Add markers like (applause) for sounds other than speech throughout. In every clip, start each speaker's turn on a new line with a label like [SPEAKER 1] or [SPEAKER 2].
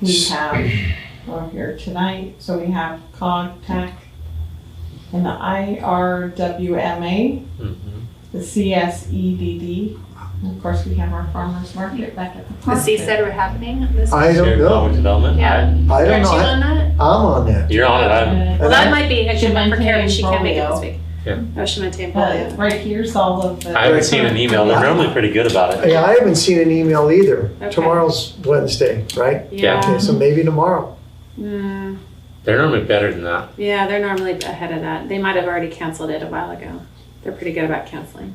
[SPEAKER 1] we have, well, here tonight, so we have COG, TAC, and the IRWMA,
[SPEAKER 2] Mm-hmm.
[SPEAKER 1] the CSEDD, and of course, we have our farmer's market back at the
[SPEAKER 3] The
[SPEAKER 1] park.
[SPEAKER 3] C E said we're happening this.
[SPEAKER 4] I don't
[SPEAKER 2] Shared
[SPEAKER 4] know.
[SPEAKER 2] Common development.
[SPEAKER 3] Yeah.
[SPEAKER 4] I don't
[SPEAKER 3] Aren't
[SPEAKER 4] know.
[SPEAKER 3] you
[SPEAKER 4] I-
[SPEAKER 3] on that?
[SPEAKER 4] I'm on that.
[SPEAKER 2] You're on it.
[SPEAKER 1] Uh,
[SPEAKER 2] I'm,
[SPEAKER 3] Well,
[SPEAKER 4] And
[SPEAKER 3] that
[SPEAKER 4] I-
[SPEAKER 3] might be, I should
[SPEAKER 1] Shemin
[SPEAKER 3] for Karen, she can't make it
[SPEAKER 1] Polio.
[SPEAKER 3] this week.
[SPEAKER 2] Yeah.
[SPEAKER 3] Oh, Shemin
[SPEAKER 1] But
[SPEAKER 3] Polio.
[SPEAKER 1] right here's all of the.
[SPEAKER 2] I haven't seen an email. They're normally pretty good about it.
[SPEAKER 4] Yeah, I haven't seen an email either.
[SPEAKER 3] Okay. Um,
[SPEAKER 4] Tomorrow's Wednesday, right?
[SPEAKER 2] Yeah.
[SPEAKER 4] Okay, so maybe tomorrow.
[SPEAKER 3] Mm,
[SPEAKER 2] They're normally better than that.
[SPEAKER 3] yeah, they're normally ahead of that. They might have already canceled it a while ago. They're pretty good about canceling.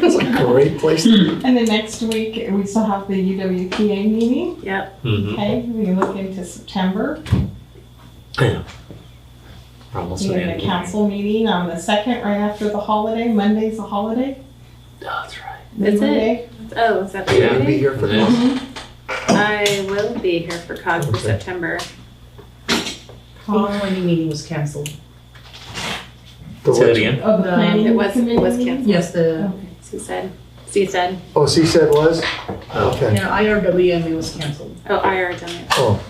[SPEAKER 4] It's a great place. to-
[SPEAKER 1] And then next week, we still have the UWPA meeting,
[SPEAKER 3] Yep.
[SPEAKER 2] Mm-hmm.
[SPEAKER 1] okay, we look into September.
[SPEAKER 2] We're almost
[SPEAKER 1] We
[SPEAKER 2] at the
[SPEAKER 1] have a
[SPEAKER 2] end.
[SPEAKER 1] council meeting on the second, right after the holiday, Monday's a holiday.
[SPEAKER 2] Oh, that's right.
[SPEAKER 3] Is
[SPEAKER 1] Labor
[SPEAKER 3] it?
[SPEAKER 1] Day.
[SPEAKER 3] Oh, is that the
[SPEAKER 2] Yeah.
[SPEAKER 4] We'll be
[SPEAKER 3] meeting?
[SPEAKER 4] here for
[SPEAKER 2] Yeah.
[SPEAKER 4] that.
[SPEAKER 3] I will be here for COG for
[SPEAKER 4] Okay.
[SPEAKER 3] September.
[SPEAKER 5] The
[SPEAKER 1] Con-
[SPEAKER 5] twenty meeting was canceled.
[SPEAKER 4] The
[SPEAKER 2] Say that
[SPEAKER 4] what?
[SPEAKER 2] again.
[SPEAKER 1] Of the
[SPEAKER 5] Um,
[SPEAKER 1] planning.
[SPEAKER 3] It was, it was
[SPEAKER 1] committee.
[SPEAKER 3] canceled.
[SPEAKER 5] Yes, the,
[SPEAKER 3] C said, C said,
[SPEAKER 4] Oh, she said was?
[SPEAKER 2] Oh.
[SPEAKER 5] you
[SPEAKER 4] Okay.
[SPEAKER 5] know, IRWMA was canceled.
[SPEAKER 3] oh, IR done
[SPEAKER 4] Oh,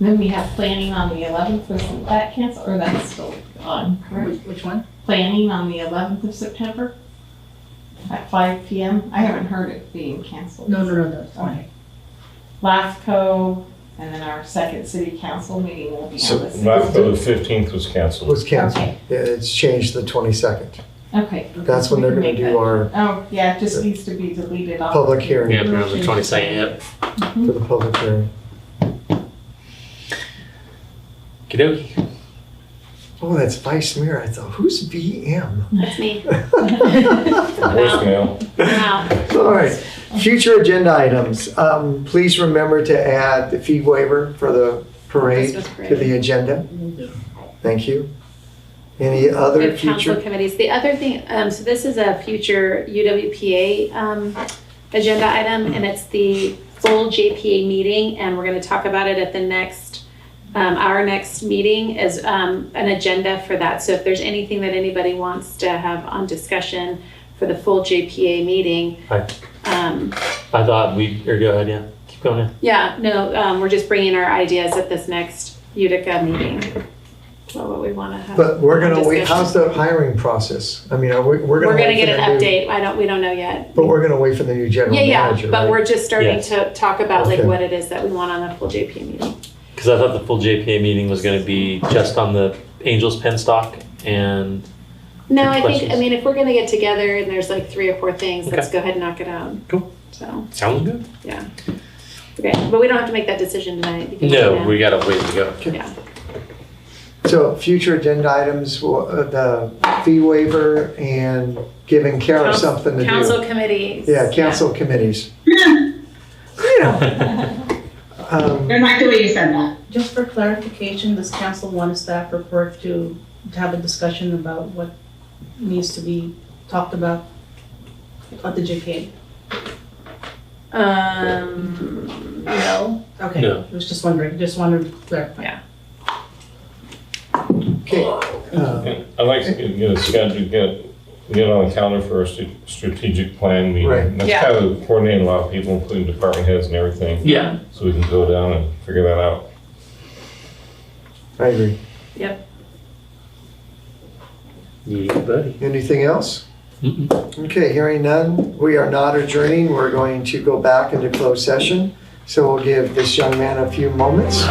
[SPEAKER 1] Then we have planning on the eleventh, was that canceled, or that's still on, correct?
[SPEAKER 5] Which, which one?
[SPEAKER 1] Planning on the eleventh of September at five P M. I haven't heard it being canceled.
[SPEAKER 5] No, no, no, that's fine.
[SPEAKER 1] LAFCO, and then our second city council meeting will be
[SPEAKER 6] So
[SPEAKER 1] on the
[SPEAKER 6] last,
[SPEAKER 1] sixth.
[SPEAKER 6] the fifteenth was canceled.
[SPEAKER 4] was canceled.
[SPEAKER 1] Okay.
[SPEAKER 4] Yeah, it's changed the 22nd.
[SPEAKER 1] Okay,
[SPEAKER 4] That's when they're gonna do our
[SPEAKER 1] oh, yeah, it just needs to be deleted off.
[SPEAKER 4] public hearing,
[SPEAKER 2] Yeah, we're on the 22nd. Yep.
[SPEAKER 4] for the public hearing.
[SPEAKER 2] Kidoki.
[SPEAKER 4] Oh, that's Vice Mayor. I thought, who's VM?
[SPEAKER 3] (laughs)
[SPEAKER 4] (laughs)
[SPEAKER 3] That's me.
[SPEAKER 6] Voicemail.
[SPEAKER 3] Wow.
[SPEAKER 4] All right, future agenda items. Um, please remember to add the fee waiver for the parade
[SPEAKER 3] Christmas parade.
[SPEAKER 4] to the agenda. Thank you. Any other
[SPEAKER 3] With council
[SPEAKER 4] future?
[SPEAKER 3] committees. The other thing, um, so this is a future UWPA, um, agenda item, and it's the full JPA meeting, and we're gonna talk about it at the next, um, our next meeting is, um, an agenda for that. So if there's anything that anybody wants to have on discussion for the full JPA meeting,
[SPEAKER 2] Hi.
[SPEAKER 3] um,
[SPEAKER 2] I thought we. Or go ahead. Yeah. Keep going. Yeah.
[SPEAKER 3] yeah, no, um, we're just bringing our ideas at this next Utica meeting. Well, What we wanna have.
[SPEAKER 4] But we're gonna wait,
[SPEAKER 3] discussion.
[SPEAKER 4] how's the hiring process? I mean, are we, we're gonna.
[SPEAKER 3] We're gonna
[SPEAKER 4] wait for
[SPEAKER 3] get an
[SPEAKER 4] the new-
[SPEAKER 3] update. I don't, we don't know yet.
[SPEAKER 4] But we're gonna wait for the new general
[SPEAKER 3] Yeah, yeah,
[SPEAKER 4] manager,
[SPEAKER 3] but
[SPEAKER 4] right?
[SPEAKER 3] we're just starting
[SPEAKER 2] Yes.
[SPEAKER 3] to talk about like
[SPEAKER 4] Okay.
[SPEAKER 3] what it is that we want on the full JP meeting.
[SPEAKER 2] Because I thought the full JPA meeting was going to be just on the Angels pen stock and
[SPEAKER 3] No, I think, I
[SPEAKER 2] Questions?
[SPEAKER 3] mean, if we're gonna get together and there's like three or four things, let's go ahead and knock it out.
[SPEAKER 2] Cool.
[SPEAKER 3] So,
[SPEAKER 2] sounds good.
[SPEAKER 3] okay, but we don't have to make that decision tonight. You can do it
[SPEAKER 2] No,
[SPEAKER 3] now.
[SPEAKER 2] we got a ways to go.
[SPEAKER 3] Yeah,
[SPEAKER 4] So future agenda items, well, uh, the fee waiver and giving Kara
[SPEAKER 3] Council-
[SPEAKER 4] something to do.
[SPEAKER 3] council committees.
[SPEAKER 4] Yeah, council committees. Um,
[SPEAKER 7] They're not the way you said that.
[SPEAKER 5] Just for clarification, this council wanted staff report to, to have a discussion about what needs to be talked about at the JPA.
[SPEAKER 3] Um, no,
[SPEAKER 5] Okay,
[SPEAKER 2] No.
[SPEAKER 5] I was just wondering, just wanted to clarify.
[SPEAKER 4] okay. Uh,
[SPEAKER 6] I'd like to get- get a schedule, get, get on the calendar for a st- strategic plan
[SPEAKER 4] Right.
[SPEAKER 6] meeting. That's
[SPEAKER 3] Yeah.
[SPEAKER 6] how to coordinate a lot of people, including department heads and everything,
[SPEAKER 2] (laughs) Yeah.
[SPEAKER 6] so we can go down and figure that out.
[SPEAKER 4] I agree.
[SPEAKER 2] Yeah, buddy.
[SPEAKER 4] Anything else?
[SPEAKER 2] Mm-mm.
[SPEAKER 4] Okay, hearing none, we are not adjourning. We're going to go back into closed session. So we'll give this young man a few moments.